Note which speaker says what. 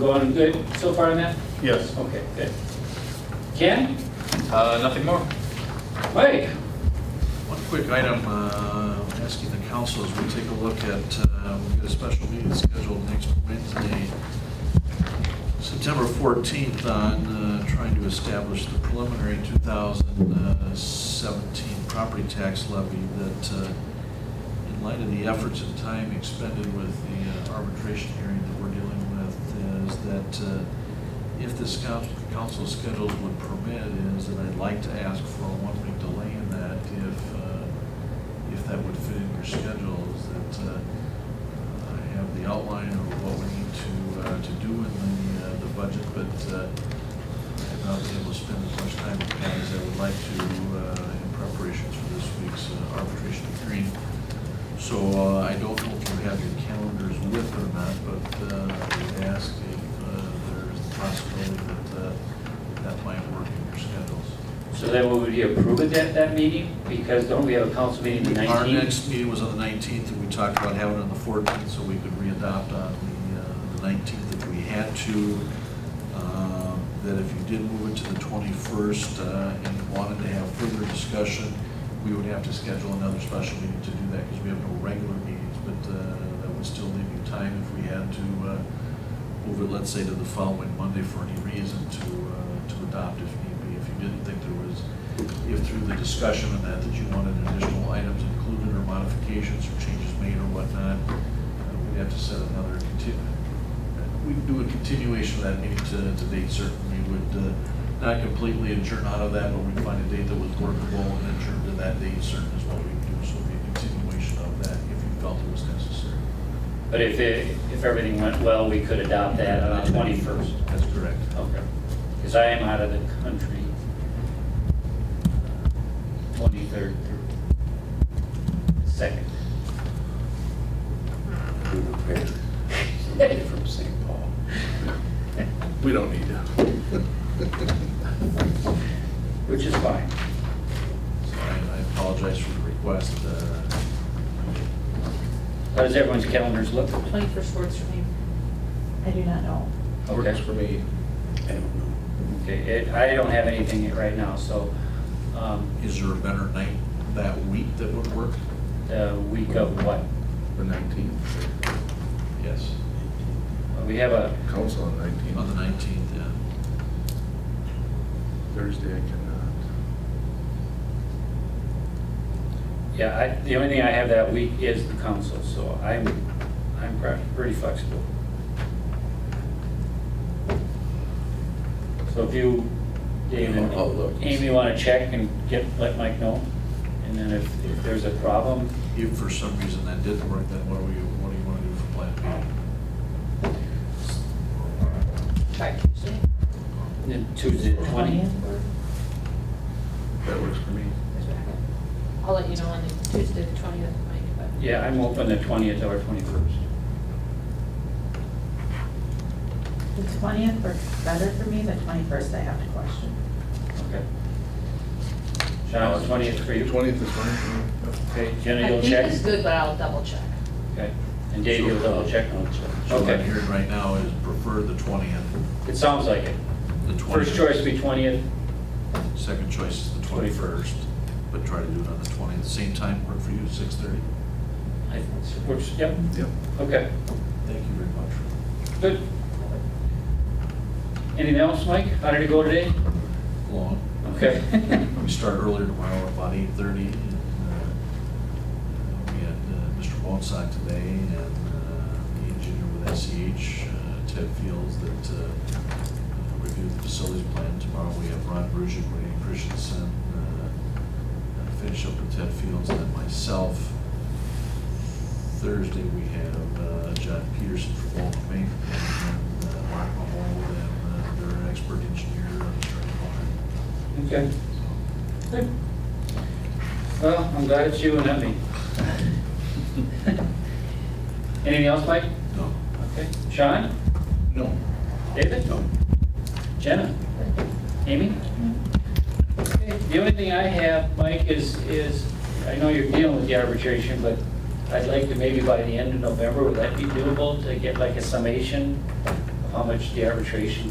Speaker 1: Going good so far on that?
Speaker 2: Yes.
Speaker 1: Okay, good. Ken?
Speaker 3: Uh, nothing more.
Speaker 1: Mike?
Speaker 4: One quick item, uh, I'm asking the council as we take a look at, uh, we've got a special meeting scheduled next Wednesday, September 14th, on uh, trying to establish the preliminary 2017 property tax levy that, uh, in light of the efforts and time expended with the uh, arbitration hearing that we're dealing with, is that uh, if this coun- council schedules would permit, is that I'd like to ask for a one-week delay in that if, uh, if that would fit in your schedules, that uh, I have the outline of what we need to, uh, to do in the, uh, the budget, but uh, I've not been able to spend as much time with that as I would like to uh, in preparations for this week's uh, arbitration hearing. So uh, I don't know if you have your calendars with or not, but uh, I would ask if uh, there's the possibility that uh, that might work in your schedules.
Speaker 1: So then would we approve it at that meeting? Because don't we have a council meeting the
Speaker 4: Our
Speaker 1: 19th?
Speaker 4: next meeting was on the 19th, and we talked about having it on the 14th, so we could re-adopt on the, uh, the 19th if we had to. Um, That if you did move it to the 21st uh, and wanted to have further discussion, we would have to schedule another special meeting to do that, because we have no regular meetings, but uh, that would still leave you time if we had to uh, move it, let's say, to the following Monday for any reason to, uh, to adopt if need be. If you didn't think there was if through the discussion on that, that you wanted additional items included or modifications or changes made or whatnot, uh, we'd have to set another conti, we'd do a continuation of that meeting to, to date certain. We would uh, not completely adjourn out of that, but we'd find a date that was workable and adjourn to that date certain is what we'd do. So it'd be a continuation of that if you felt it was necessary.
Speaker 1: But if, it- if everything went well, we could adopt that uh, on the 21st.
Speaker 4: That's correct.
Speaker 1: Okay. Because I am out of the country. uh, 23rd through 2nd.
Speaker 2: We prepared somebody from St. Paul. We don't need to.
Speaker 1: Which is fine.
Speaker 4: So I I apologize for the request. uh,
Speaker 1: How does everyone's calendars look?
Speaker 5: Twenty-first works for me. I do not know.
Speaker 1: Okay.
Speaker 2: me. I don't know.
Speaker 1: Okay, it- I don't have anything right now, so um,
Speaker 4: Is there a better night that week that would work?
Speaker 1: the week of what?
Speaker 6: The 19th,
Speaker 4: Yes.
Speaker 1: We have a,
Speaker 6: council on 19th.
Speaker 4: On the 19th, yeah.
Speaker 6: Thursday, I cannot.
Speaker 1: Yeah, I, the only thing I have that week is the council, so I'm, I'm pre- pretty flexible. So if you, Dave and
Speaker 2: I'll look.
Speaker 1: Amy want to check and get, let Mike know, and then if, if there's a problem,
Speaker 4: If for some reason that didn't work, then what do you, what do you want to do for Plan B?
Speaker 5: Try Tuesday.
Speaker 1: then Tuesday the 20th.
Speaker 6: That works for me.
Speaker 5: I'll let you know on the Tuesday, the twentieth, Mike, but.
Speaker 1: Yeah, I'm open the 20th or 21st.
Speaker 7: The twentieth works better for me, the twenty-first I have a question.
Speaker 1: Okay. Sean, the 20th for you?
Speaker 6: 20th is fine for me.
Speaker 1: Okay, Jenna, you'll check?
Speaker 5: I think it's good, but I'll double check.
Speaker 1: Okay. And Dave, you'll double check?
Speaker 4: So what I'm
Speaker 1: Okay,
Speaker 4: hearing right now is prefer the 20th.
Speaker 1: it sounds like it.
Speaker 4: The 20th.
Speaker 1: First choice would be 20th,
Speaker 4: Second choice is the 21st, but try to do it on the 20th. Same time work for you, 6:30?
Speaker 1: I think, which, yep,
Speaker 6: Yep.
Speaker 1: okay,
Speaker 4: Thank you very much.
Speaker 1: good. Anything else, Mike? How did it go today?
Speaker 4: Long.
Speaker 1: Okay.
Speaker 4: We start earlier tomorrow, about eight thirty, and uh, we had uh, Mr. Walzak today, and uh, the engineer with SEH, uh, Ted Fields, that uh, reviewed the facilities plan. Tomorrow, we have Ron Brusick, Renee Christensen, uh, uh, finish up with Ted Fields, and then myself. Thursday, we have uh, John Peterson from Walton Bank, and uh, Mark Mahol, and uh, their expert engineer, uh, Mr. Mahol.
Speaker 1: Okay. Good. Well, I'm glad it's you and not me. Anything else, Mike?
Speaker 4: No.
Speaker 1: Okay. Sean?
Speaker 4: No.
Speaker 1: David?
Speaker 2: No.
Speaker 1: Jenna? Amy? Okay, The only thing I have, Mike, is, is, I know you're dealing with the arbitration, but I'd like to maybe by the end of November, would that be doable to get like a summation of how how much the arbitration